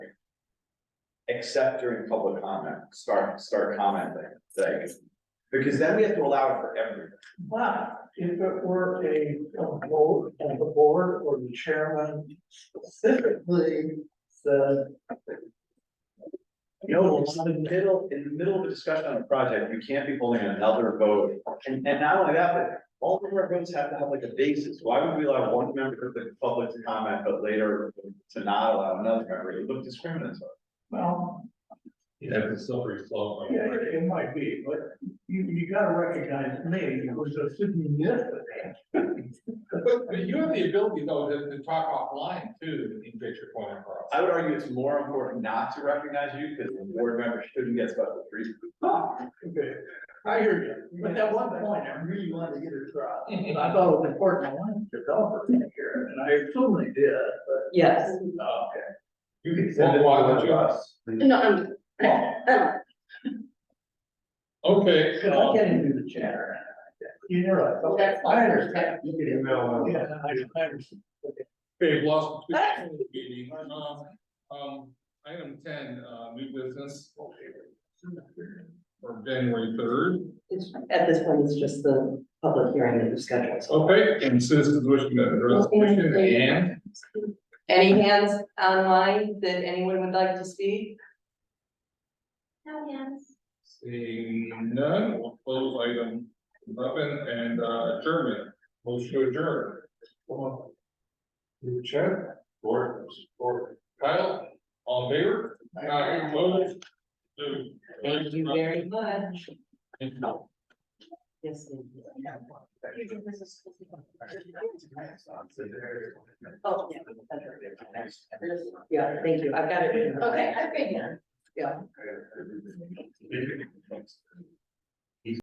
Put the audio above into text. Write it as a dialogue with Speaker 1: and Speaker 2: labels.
Speaker 1: except during public comment, start, start commenting, like, because then we have to allow it for everything.
Speaker 2: But if it were a, a board, and the board or the chairman specifically said.
Speaker 1: No, it's in the middle, in the middle of a discussion on a project, you can't be holding another vote, and, and not only that, but all of our votes have to have like a basis, why would we allow one member of the public to comment, but later to not allow another member, it looked discriminatory.
Speaker 2: Well,
Speaker 3: You have a slippery slope.
Speaker 2: yeah, it it might be, but you, you gotta recognize me, it was a significant.
Speaker 3: But, but you have the ability though to, to talk offline too, and get your point across.
Speaker 1: I would argue it's more important not to recognize you, because the board member shouldn't get special treatment.
Speaker 2: Okay, I hear you, but at one point, I really wanted to get it across, and I thought it was important, I wanted to develop it here, and I assume they did, but. uh,
Speaker 4: Yes.
Speaker 2: Okay.
Speaker 1: You can
Speaker 3: send it Well, why would you? to
Speaker 1: us.
Speaker 4: No, I'm,
Speaker 3: Okay,
Speaker 2: I'm
Speaker 3: um,
Speaker 2: getting through the chatter. You're right, okay,
Speaker 4: That's fine.
Speaker 2: I understand.
Speaker 1: You can email uh,
Speaker 2: Yeah, I, I understand.
Speaker 3: okay, we've lost. the picture of the meeting. Um, Um, item ten, uh, new business. For January third.
Speaker 4: it's- at this point, it's just the public hearing that was scheduled. so-
Speaker 3: Okay, and citizens wishing to address the question and
Speaker 4: Any hands online that anyone would like to speak?
Speaker 5: No hands.
Speaker 3: seeing none, we'll close item eleven and uh, adjournment. Motion to adjourn. You chair. Board, board. Kyle, all in favor? Aye, opposed? Two.
Speaker 4: Thank you very much.
Speaker 3: Thank you.
Speaker 4: Yes. thank you. Oh, yeah. that's right. Yeah, thank you. I've got it.
Speaker 5: Okay, I figured.
Speaker 4: Yeah.